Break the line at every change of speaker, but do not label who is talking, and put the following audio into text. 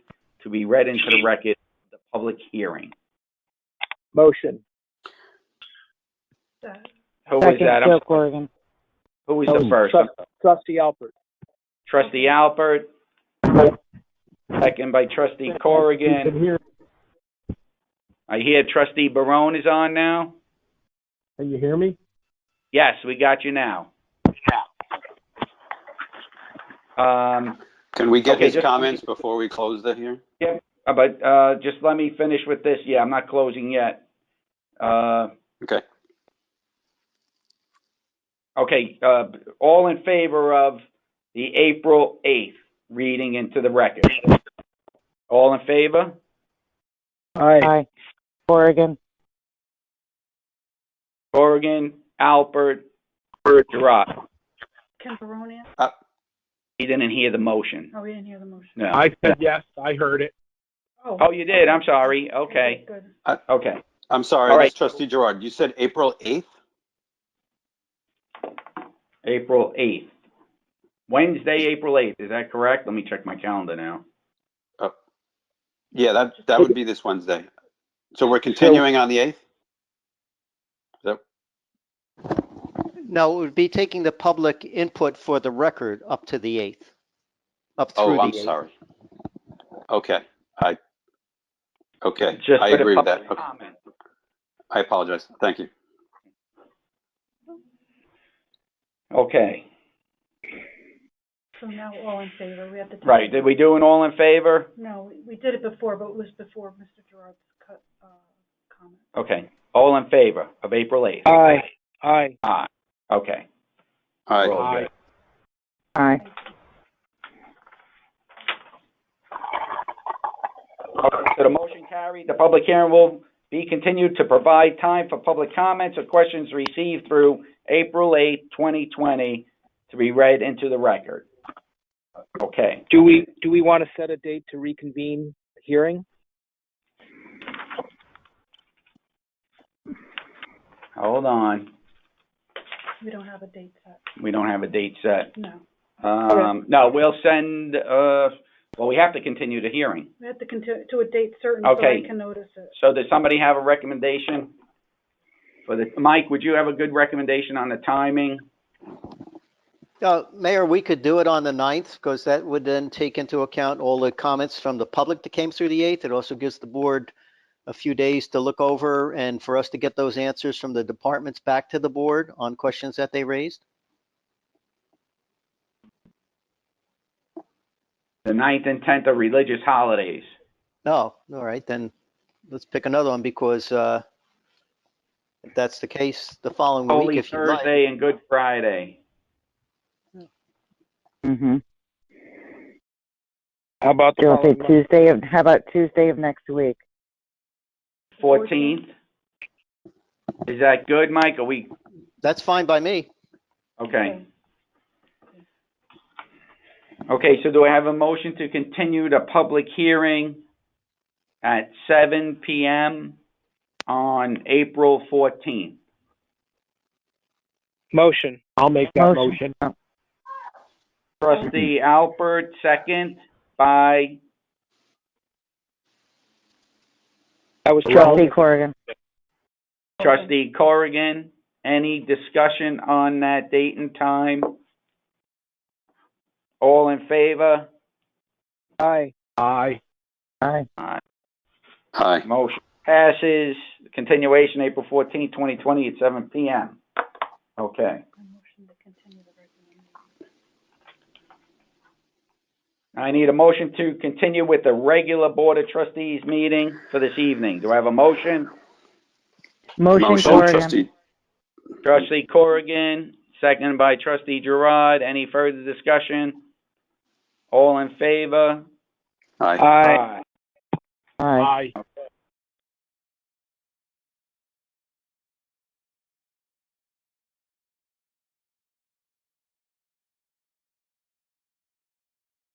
to be read into the record of the public hearing.
Motion.
Who was
Second,
that? I'm-
Joe Corrigan.
Who was the first?
Trust- Trustee Alpert.
Trustee Alpert. Second by trustee Corrigan.
Here,
I hear trustee Barone is on now.
can you hear me?
Yes, we got you now. Um,
Can we get
Okay,
his
just-
comments before we close the hearing?
uh, but, uh, just let me finish with this. Yeah, I'm not closing yet. Uh,
Okay.
okay, uh, all in favor of the April 8th reading into the record? All in favor?
Aye.
Aye. Corrigan.
Corrigan, Alpert, Gerard.
Can Barone answer?
Uh,
He didn't hear the motion.
Oh, we didn't hear the motion.
No.
I said yes, I heard it.
Oh, you did. I'm sorry. Okay.
Good.
Uh,
Okay.
I'm sorry,
All right.
that's trustee Gerard. You said April 8th?
April 8th. Wednesday, April 8th. Is that correct? Let me check my calendar now.
Yeah, that, that would be this Wednesday. So we're continuing on the 8th?
No, it would be taking the public input for the record up to the 8th, up through the 8th.
Oh, I'm sorry. Okay, I, okay,
Just
I
for the
agree with that.
public
Okay,
comment.
I apologize. Thank you.
Okay.
So now all in favor, we have to. take-
Right. Did we do an all in favor?
No, we- we did it before, but it was before Mr. Gerard's cut, uh, comment.
Okay. All in favor of April 8th?
Aye. Aye.
Aye. Okay.
All right,
Roll.
Aye.
Aye.
Okay, So the motion carried. The public hearing will be continued to provide time for public comments or questions received through April 8th, 2020, to be read into the record. Okay.
Do we, do we want to set a date to reconvene hearing?
Hold on.
We don't have a date set,
We don't have a date set.
no.
Um, no, we'll send, uh, well, we have to continue the hearing.
We have to continue to a date certain so
Okay.
I can notice it.
So does somebody have a recommendation? For the, Mike, would you have a good recommendation on the timing?
Uh, Mayor, we could do it on the 9th because that would then take into account all the comments from the public that came through the 8th. It also gives the board a few days to look over and for us to get those answers from the departments back to the board on questions that they raised.
The ninth and tenth are religious holidays.
No, Oh, all right, then let's pick another one because uh, if that's the case, the following week,
Holy
if you like.
Thursday and Good Friday.
Mm-hmm.
How about the
Joe
following
said
month?
Tuesday of, how about Tuesday of next week?
Fourteenth? Is that good, Mike? Are we,
That's fine by me.
okay. Okay, so do I have a motion to continue the public hearing at seven PM on April fourteenth?
Motion.
I'll make that
Motion.
motion.
Trustee Alpert, second by,
That was
Trustee
Charlie.
Corrigan.
Trustee Corrigan, any discussion on that date and time? All in favor?
Aye.
Aye.
Aye.
Aye.
hi.
Motion passes. Continuation, April fourteenth, twenty twenty, at seven PM. Okay.
I motion to continue the regular meeting.
I need a motion to continue with the regular Board of Trustees meeting for this evening. Do I have a motion?
Motion Corrigan.
trustee.
Trustee Corrigan, second by Trustee Gerard. Any further discussion? All in favor?
Aye.
Aye.
Aye.
Okay.